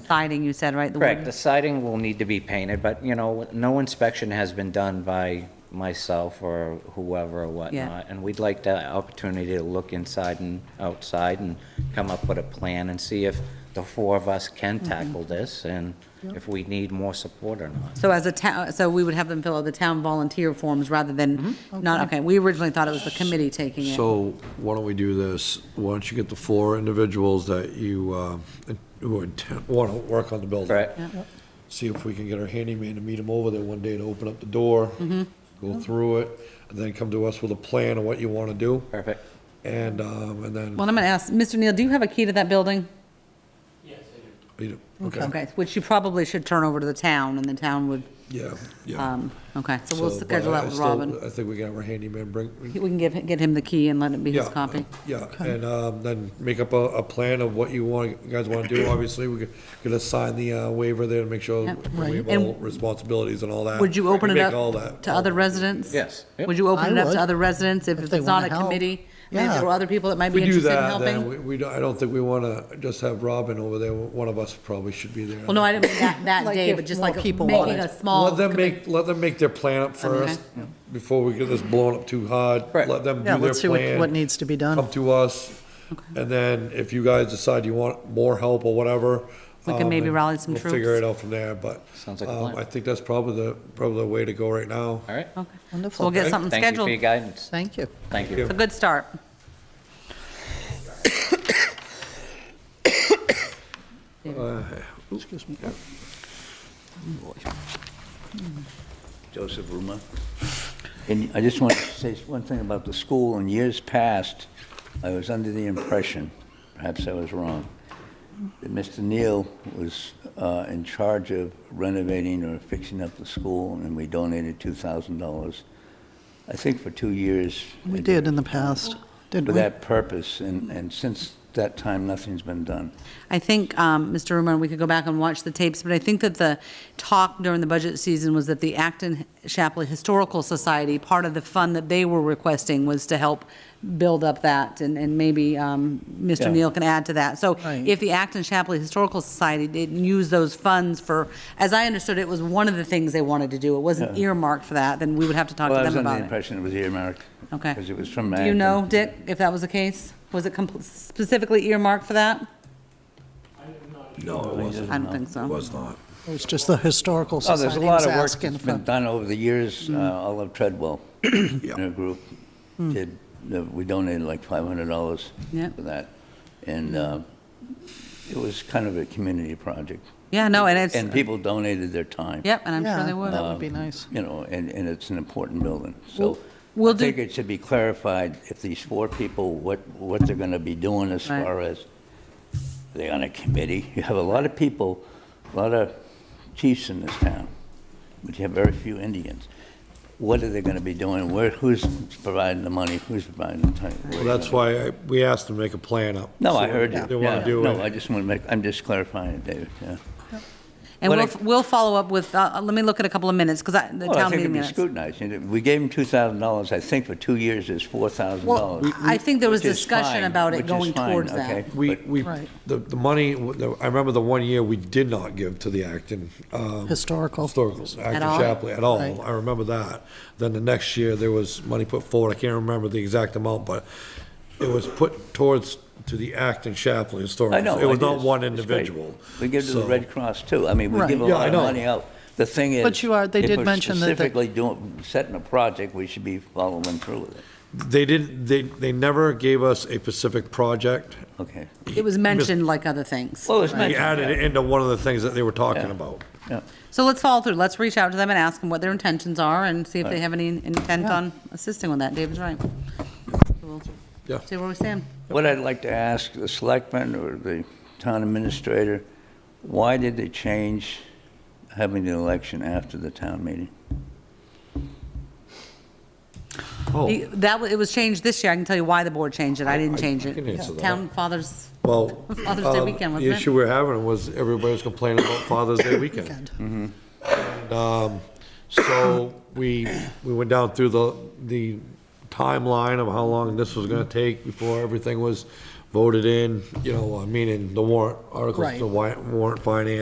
siding, you said, right? The Correct, the wooden- siding will need to be painted, but, you know, no inspection has been done by myself or whoever or whatnot. And we'd like the opportunity to look inside and outside and come up with a plan and see if the four of us can Mm-hmm. tackle this and if we need more support or not. So as a town, so we would have them fill out the town volunteer forms rather than, not, okay, we originally thought it was the committee taking it. Mm-hmm. So why don't we do this? Why don't you get the four individuals that you, uh, who intend, want to work on the building? Correct? See if we can get our handyman to meet them over there one day to open up the door, Mm-hmm. go through it, and then come to us with a plan of what you want to do. Perfect. And, um, and then, Well, I'm going to ask, Mr. Neal, do you have a key to that building? okay, Okay, which you probably should turn over to the town, and the town would, yeah, yeah. um, okay, so we'll So, but schedule that I with still- Robin. I think we can have our handyman bring, We can give, get him the key and let it be his Yeah, copy. Yeah, and um, then make up a, a plan of what you want, you guys want to do. Obviously, we could- could assign the uh, waiver there to make sure Yep. we have And- all responsibilities and all that. Would you open it Make all up that- to all other that. residents? Yes. Yep. Would you open it I up would, to other residents if if it's they not wanna a help. committee? Maybe Yeah. there were other people that might If be we do interested in that, then helping? we, we don't, I don't think we want to just have Robin over there. One of us probably should be there. Well, no, I didn't mean that, that Like day, if but just more like people making wanted. a small. Let them commi- make, let them make their plan up first, before we get this blown up too hard. Correct. Let them do Yeah, their plan. let's see what- what needs to be done. Come to us, and then if you guys decide you want more help or whatever. We can um, maybe then rally some We'll troops. figure it out from there, but. Sounds like a um, plan. I think that's probably the, probably the way to go right now. All right? Okay. So Wonderful. We'll get Okay. something Thank you for your scheduled. guidance. Thank you. Thank you. It's a good start. Excuse me. Joseph Ruma. And I just want to say one thing about the school. In years past, I was under the impression, perhaps I was wrong, that Mr. Neal was uh, in charge of renovating or fixing up the school, and we donated $2,000, I think for two years. We did in the past, didn't For we? that purpose, and, and since that time, nothing's been done. I think, um, Mr. Rumor, we could go back and watch the tapes, but I think that the talk during the budget season was that the Acton Shapley Historical Society, part of the fund that they were requesting was to help build up that, and, and maybe um, Yeah. Mr. Neal can add to that. So Right. if the Acton Shapley Historical Society didn't use those funds for, as I understood, it was one of the things they wanted to do. It wasn't earmarked for that, then we would have to talk Well, I to was them under the about it. impression it was earmarked. Okay. Because it was from Do you Acton. know, Dick, if that was the case? Was it compl- specifically earmarked for that? No, it wasn't, I don't think so. it was not. It was just the Historical Oh, there's Society a lot was of work asking that's for. been done over the years. Uh, Mm. Olive Treadwell, in her group, Hmm. did, uh, we donated like $500 Yep. for that. And uh, it was kind of a community project. Yeah, no, and it's. And Uh, people donated their time. Yep, and I'm Yeah, sure they Um, would. That would be nice. You know, and, and it's an important building. So we'll I do- think it should be clarified if these four people, what, what they're going to be doing as Right. far as, they're on a committee. You have a lot of people, a lot of chiefs in this town, but you have very few Indians. What are they going to be doing? Where, who's providing the money? Who's providing the time? Well, that's why I- we asked them to make a plan up. No, see I what heard you. They want Yeah. to do No, I it. just want to make, I'm just clarifying it, David, yeah. And what we'll, I- we'll follow up with, uh, let me look at a couple of minutes, because the Well, I town think meeting it'd be minutes. scrutinized. You know, We gave them two thousand dollars, I think for two years it's four thousand Well, dollars. I think there was discussion about it going towards that. We, we, Right. the, the money, I remember the one year we did not give to the Acton, um, Historical. Historicals, Acton all? Chapley, at Right. all. I remember that. Then the next year, there was money put forward. I can't remember the exact amount, but it was put towards, to the Acton Chapley Historicals. I know. It was it not is. one It's great. individual. We give to the So- Red Cross too. I mean, we Right. give a Yeah, I lot of know. money out. The thing is. But you are- they if did we're mention that the- Specifically doing, setting a project, we should be following through with it. They didn't, they, they never gave us a specific project. Okay. It was mentioned like other things. Well, it's They added it mentioned, into one of the things that they were talking Yeah. about. yeah. So let's follow through. Let's reach out to them and ask them what their intentions are and see if they have any intent on assisting with that. David's right. We'll Yeah. See where we stand. What I'd like to ask the selectman or the town administrator, why did they change having the election after the town meeting? Oh. Oh. The- That, wa- it was changed this year. I can tell you why the board changed it. I didn't change can answer it. that. Town fathers, Well, Father's Day um, weekend, the wasn't it? issue we're having was everybody was complaining about Father's Day weekend. um, Weekend. So we, we went down through the, the timeline of how long this was gonna take before everything was voted in, you know, uh, meaning the warrant articles, Right. the wi- warrant finance,